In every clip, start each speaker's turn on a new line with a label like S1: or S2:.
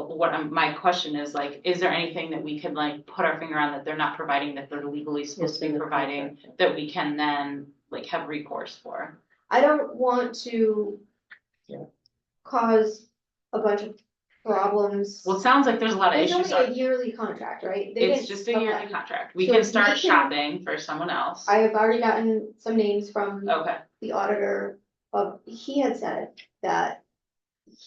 S1: what I'm, my question is like, is there anything that we can like put our finger on that they're not providing that they're legally supposed to be providing? That we can then like have recourse for?
S2: I don't want to.
S3: Yeah.
S2: Cause a bunch of problems.
S1: Well, it sounds like there's a lot of
S2: It's
S1: issues.
S2: only a yearly contract, right? They
S1: It's
S2: didn't-
S1: just a yearly
S2: okay.
S1: contract. We
S2: So
S1: can
S2: we
S1: start
S2: can-
S1: shopping for someone else.
S2: I have already gotten some names from
S1: Okay,
S2: the auditor of, he had said that.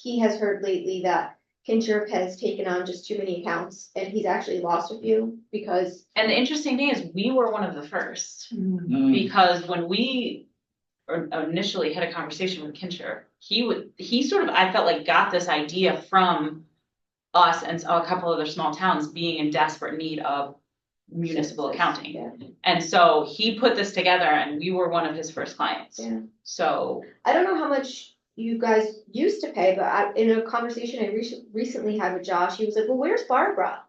S2: He has heard lately that Kinshirp has taken on just too many accounts and he's actually lost a few because.
S1: and the interesting thing is, we were one of the first.
S4: Mm. Mm-hmm.
S1: Mm. Because when we or- initially had a conversation with Kincher, he would, he sort of, I felt like got this idea from us and a couple other small towns being in desperate need of municipal accounting.
S2: Yeah.
S1: And so he put this together and we were one of his first clients.
S2: Yeah.
S1: So,
S2: I don't know how much you guys used to pay, but I, in a conversation I rec- recently had with Josh, he was like, well, where's Barbara?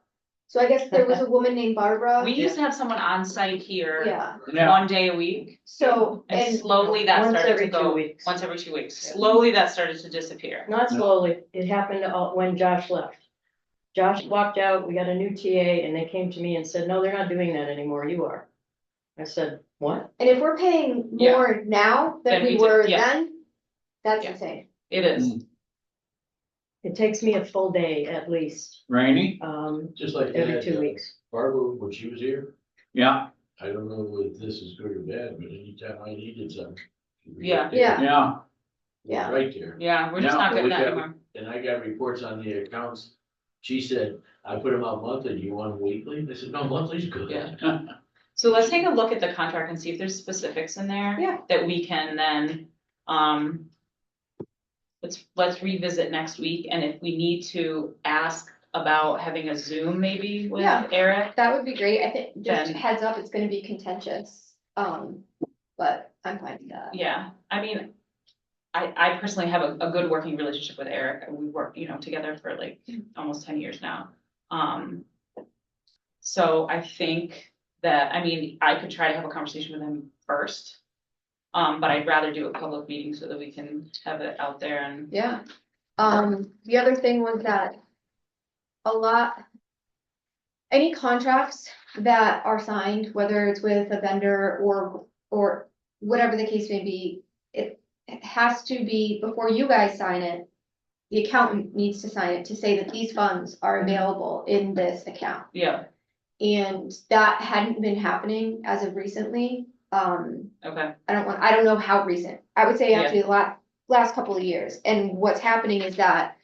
S2: So I guess there was a woman named
S4: Oh,
S2: Barbara.
S1: we used to have someone on site here
S2: Yeah,
S3: Yeah,
S1: one day a week.
S2: so,
S1: And
S2: and
S1: slowly that
S4: Once
S1: started to
S4: every two
S1: go,
S4: weeks.
S1: once every two weeks,
S4: Yeah.
S1: slowly that started to disappear.
S4: Not slowly, it happened uh, when Josh left. Josh walked out, we got a new TA, and they came to me and said, no, they're not doing that anymore, you are. I said, what?
S2: And if we're paying
S1: Yeah.
S2: more now
S1: Than
S2: than
S1: we
S2: we
S1: did,
S2: were
S1: yeah.
S2: then, that's
S1: Yeah.
S2: insane.
S1: It is.
S4: It takes me a full day at least,
S3: rainy,
S4: um,
S5: Just like
S4: every
S5: that,
S4: two
S5: uh,
S4: weeks.
S5: Barbara, when she was here,
S3: yeah,
S5: I don't know if this is good or bad, but anytime I needed something. she was right
S1: Yeah.
S5: there.
S2: Yeah.
S3: yeah,
S5: She was
S2: Yeah.
S5: Right there,
S1: Yeah, we're just
S3: Yeah,
S1: not
S5: but
S1: good
S5: we
S1: at
S5: got-
S1: that anymore.
S5: and I got reports on the accounts, she said, I put them out monthly, you want 'em weekly? They said, no, monthly's good.
S1: Yeah. So let's take a look at the contract and see if there's specifics in there.
S2: Yeah.
S1: That we can then, um. Let's, let's revisit next week, and if we need to ask about having a Zoom maybe with
S2: Yeah.
S1: Eric.
S2: That would be great. I think, just
S1: Then-
S2: heads up, it's gonna be contentious, um, but I'm fine with that.
S1: Yeah, I mean, I, I personally have a, a good working relationship with Eric, we work, you know, together for like almost ten years now. Um. So I think that, I mean, I could try to have a conversation with him first. Um, but I'd rather do a public meeting so that we can have it out there and,
S2: Yeah. Um, the other thing was that a lot, any contracts that are signed, whether it's with a vendor or, or whatever the case may be, it has to be, before you guys sign it, the accountant needs to sign it to say that these funds are available in this account.
S1: yeah,
S2: And that hadn't been happening as of recently. Um,
S1: okay,
S2: I don't want, I don't know how recent. I would say actually the last, last couple of years. And what's happening is that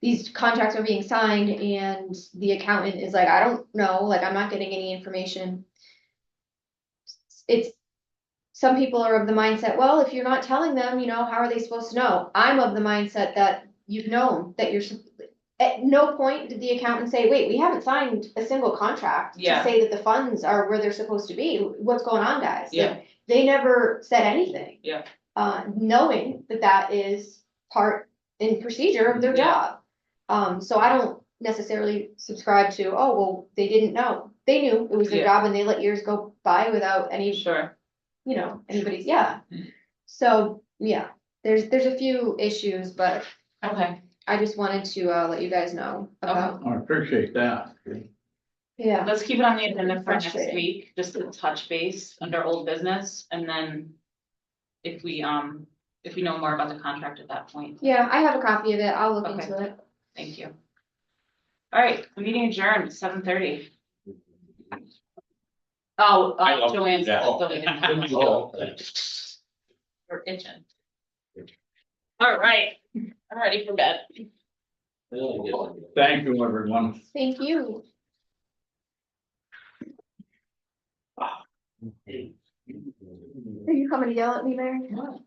S2: these contracts are being signed and the accountant is like, I don't know, like, I'm not getting any information. It's, some people are of the mindset, well, if you're not telling them, you know, how are they supposed to know? I'm of the mindset that you've known, that you're, sup- at no point did the accountant say, wait, we haven't signed a single contract to
S1: Yeah.
S2: say that the funds are where they're supposed to be. What's going on, guys? Like,
S1: yeah.
S2: they never said anything.
S1: Yeah.
S2: Uh, knowing that that is part and procedure of their
S1: Yeah.
S2: job. Um, so I don't necessarily subscribe to, oh, well, they didn't know. They knew it was their
S1: Yeah.
S2: job and they let years go by without any,
S1: Sure,
S2: you know, anybody's, yeah.
S1: Mm-hmm.
S2: So, yeah, there's, there's a few issues, but
S1: okay,
S2: I just wanted to, uh, let you guys know about,
S3: I appreciate that.
S2: yeah.
S1: let's keep it on the agenda for next
S2: Frustrating.
S1: week, just to touch base under old business, and then. If we, um, if we know more about the contract at that point,
S2: Yeah, I have a copy of it. I'll look
S1: Okay.
S2: into it.
S1: thank you. All right, meeting adjourned, seven thirty. Oh,
S3: I
S1: uh,
S3: love
S1: Joanne's.
S3: that.
S1: Joanne's-
S5: Oh, thanks.
S1: We're itching. All right, I'm ready for bed.
S5: Really good.
S3: Thank you, everyone.
S2: Thank you. Are you coming to yell at me, Mary?
S1: No.